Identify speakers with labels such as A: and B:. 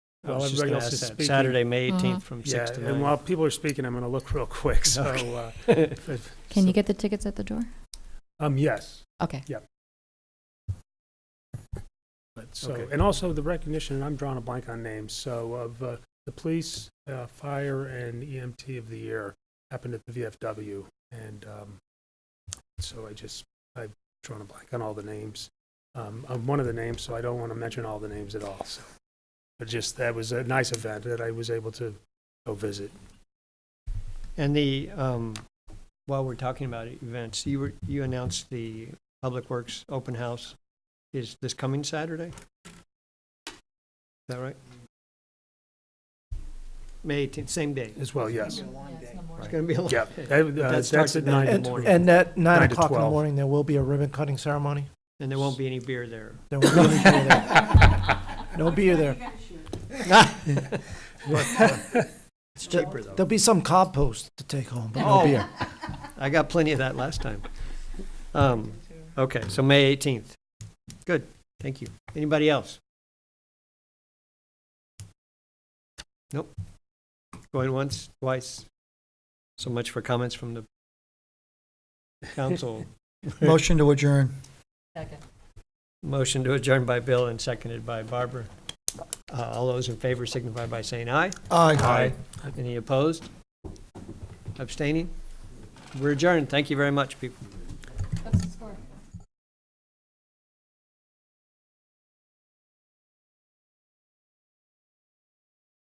A: I
B: while
A: was just
B: everybody
A: gonna
B: else is
A: ask that.
B: speaking.
A: Saturday, May 18th from
B: Yeah,
A: 6 to
B: and
A: 9.
B: while people are speaking, I'm going to look real quick, so. uh, if- if-
C: Can you
B: so-
C: get the tickets at the door?
B: Um, yes.
C: Okay.
A: But,
B: So,
A: okay.
B: and also the recognition, and I'm drawing a blank on names, so of uh, the police, uh, fire, and EMT of the year happened at the VFW. And um, so I just, I've drawn a blank on all the names, um, of one of the names, so I don't want to mention all the names at all, so. But just, that was a nice event that I was able to go visit.
A: And the, um, while we're talking about events, you were, you announced the Public Works Open House is this coming Saturday? Is that right? May 18th, same day.
B: As well, yes.
A: It's going to be a long
B: Yeah,
A: day.
B: that-
A: But
B: uh,
A: that starts
B: that's at
A: at nine in
B: nine.
A: the morning.
D: And at nine
B: Nine to
D: o'clock in the
B: 12.
D: morning, there will be a ribbon cutting ceremony.
A: And there won't be any beer there.
D: There will be a beer there. No beer there.
B: uh,
A: It's cheaper, though.
D: There'll be some cob post to take home, but
A: Oh.
D: no beer.
A: I got plenty of that last time. Um, okay, so May 18th. Good, thank you. Anybody else? Nope. Going once, twice. So much for comments from the council.
E: Motion to adjourn.
A: Motion to adjourn by Bill and seconded by Barbara. Uh, all those in favor signify by saying aye.
E: Aye.
A: Any opposed? Abstaining? We're adjourned. Thank you very much, people.